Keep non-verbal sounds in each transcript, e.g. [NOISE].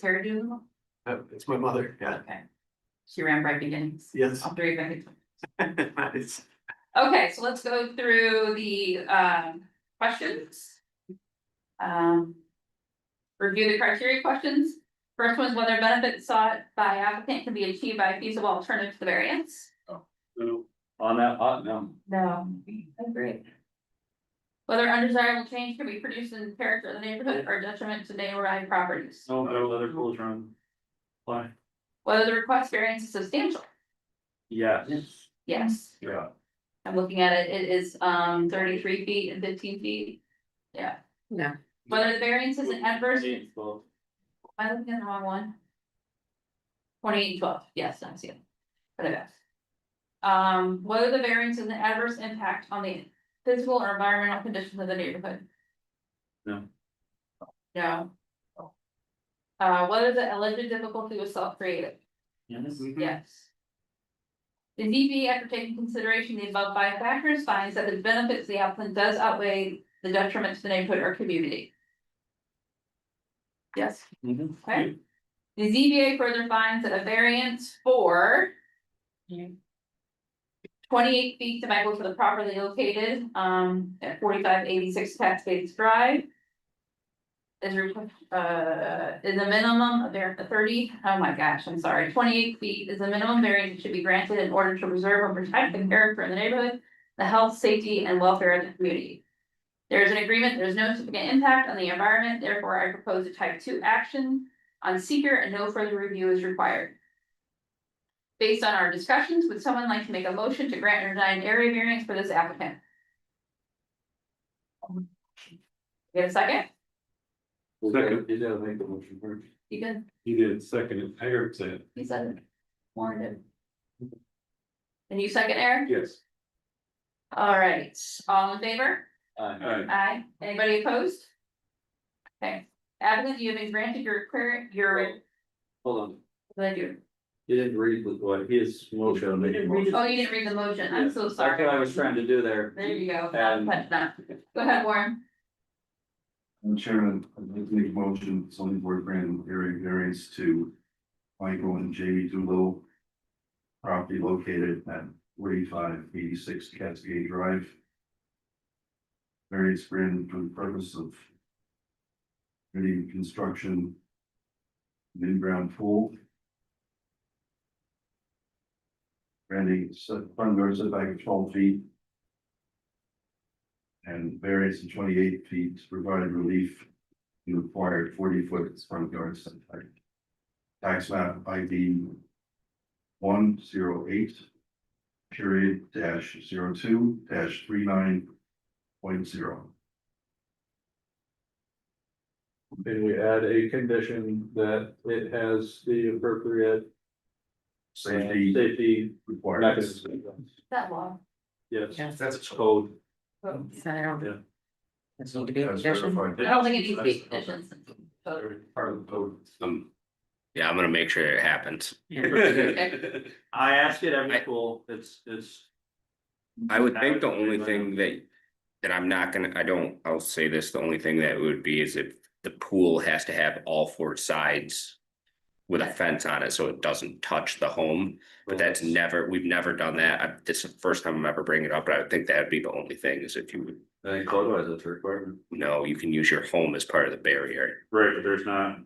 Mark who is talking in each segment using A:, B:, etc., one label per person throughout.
A: Tara do?
B: Oh, it's my mother, yeah,
A: Okay. She ran bright beginnings,
B: yes. [LAUGHS]
A: all three of them.
B: It's-
A: Okay, so let's go through the um questions. Um. Review the criteria questions. First one is whether benefits sought by applicant can be achieved by a feasible alternative to the variance.
C: No, on that, uh, no,
A: No, agree. Whether undesirable change can be produced in character of the neighborhood or detriment to neighboring properties.
C: no, no other rules run. Why?
A: Whether the request variance is substantial.
C: Yes,
A: Yes,
C: yeah,
A: I'm looking at it. It is um thirty-three feet and fifteen feet. Yeah.
D: No.
A: Whether the variance is an adverse, am
C: eight, twelve,
A: I looking at the wrong one? Twenty-eight and twelve, yes, I see it. But it is. Um, whether the variance is an adverse impact on the physical or environmental conditions of the neighborhood.
C: No.
A: No. Uh, whether the alleged difficulty was self-created.
C: yes,
E: Mm-hmm.
A: Yes. The DB, after taking consideration the above five factors, finds that the benefits to the applicant does outweigh the detriment to the neighborhood or community. Yes,
C: mhm.
A: okay. The ZBA further finds that a variance for
D: Yeah.
A: twenty-eight feet to Michael for the properly located, um, at forty-five eighty-six Cascades Drive is, re- uh, is a minimum of there, thirty, oh my gosh, I'm sorry, twenty-eight feet is the minimum variance that should be granted in order to preserve and protect the character of the neighborhood, the health, safety, and welfare of the community. There is an agreement, there's no significant impact on the environment, therefore I propose a type two action on seeker and no further review is required. Based on our discussions, would someone like to make a motion to grant or deny an area variance for this applicant? Get a second?
C: Second, you gotta make the motion first.
A: You can,
C: He did second, and Eric said.
A: he said it. Warren did. And you second, Eric?
C: Yes.
A: All right, all in favor?
C: Alright.
A: Aye. Anybody opposed? Okay, applicant, you have been granted your prayer, your,
C: Hold on,
A: what did I do?
C: you didn't read with what his motion.
D: You didn't read it.
A: Oh, you didn't read the motion. I'm so
C: That's
A: sorry.
C: what I was trying to do there.
A: There you go. Now, but not- Go ahead, Warren.
E: Madam Chairman, I'd like to make a motion, zoning board grant area variance to Michael and Jamie Doolittle. Property located at forty-five eighty-six Cascade Drive. Variance granted for the purpose of. Any construction. of an In-ground pool. Granting set front yard setback of twelve feet and variance of twenty-eight feet to provide relief. to required forty-foot front yard setback. Tax map ID one zero eight period dash zero two dash three nine point zero.
C: And we add a condition that it has the appropriate
E: Safety
C: safety
E: required.
A: That law.
C: Yes,
D: Yes.
E: That's
C: code. Oh.
D: So I don't.
C: Yeah.
D: That's not a good
E: That's
D: condition.
E: verified.
A: I don't think it needs to be conditions. But-
E: Part of the code.
F: Um, yeah, I'm gonna make sure it happens.
D: Yeah.
C: I ask it every
F: I-
C: school, it's, it's.
F: I Mm-hmm. would think the
C: Happens
F: only
C: everywhere.
F: thing that, that I'm not gonna, I don't, I'll say this, the only thing that would be is if the pool has to have all four sides. With a fence on it, so it doesn't touch the home, but that's never, we've never done that, I, this is the first time I'm ever bringing it up, but I would think that'd be the only thing is if you would.
C: I think code-wise, that's a requirement.
F: No, you can use your home as part of the barrier,
C: Right, but there's not.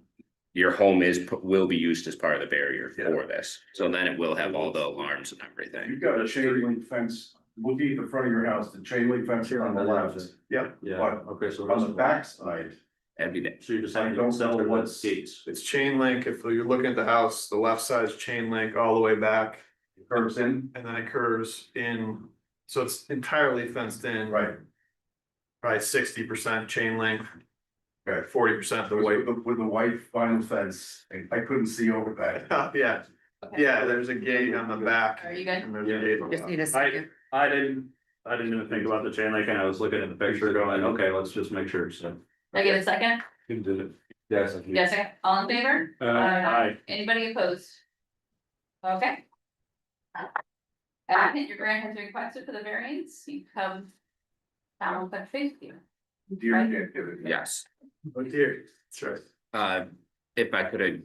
F: your home is, pu- will be used as part of the barrier
E: Yeah.
F: for this, so then it will have all the alarms and everything.
E: You've got a chain link fence, looking at the front of your house, the chain link fence here on the left, yep,
C: Yeah,
E: But
C: okay, so.
E: on the backside.
F: That'd be the
C: So you just have
E: I
C: to
E: don't
C: sell
E: know
C: what
E: what's-
C: states.
G: It's chain link, if you're looking at the house, the left side's chain link all the way back,
E: curves in,
G: and then it curves in. So it's entirely fenced in.
E: right,
G: Probably sixty percent chain link,
E: okay.
G: forty percent the
E: With
G: white.
E: the, with the white vinyl fence, I couldn't see over that. [LAUGHS]
G: Yeah, yeah, there's a gate on the back.
A: Are you good?
G: And there's a gate. on the
D: Just
G: back.
D: need a second.
C: I didn't, I didn't even think about the chain link and I was looking at the picture going, okay, let's just make sure, so.
A: Did I get a second?
C: Who did it? Yes.
A: Yes, second. all in favor?
C: Uh,
A: Aye.
C: aye.
A: Anybody opposed? Okay. Applicant, your grant has requested for the variance, you have. Donald, but faith you.
E: Deer activity.
F: Yes.
G: Oh dear, that's right.
F: Uh, if I could have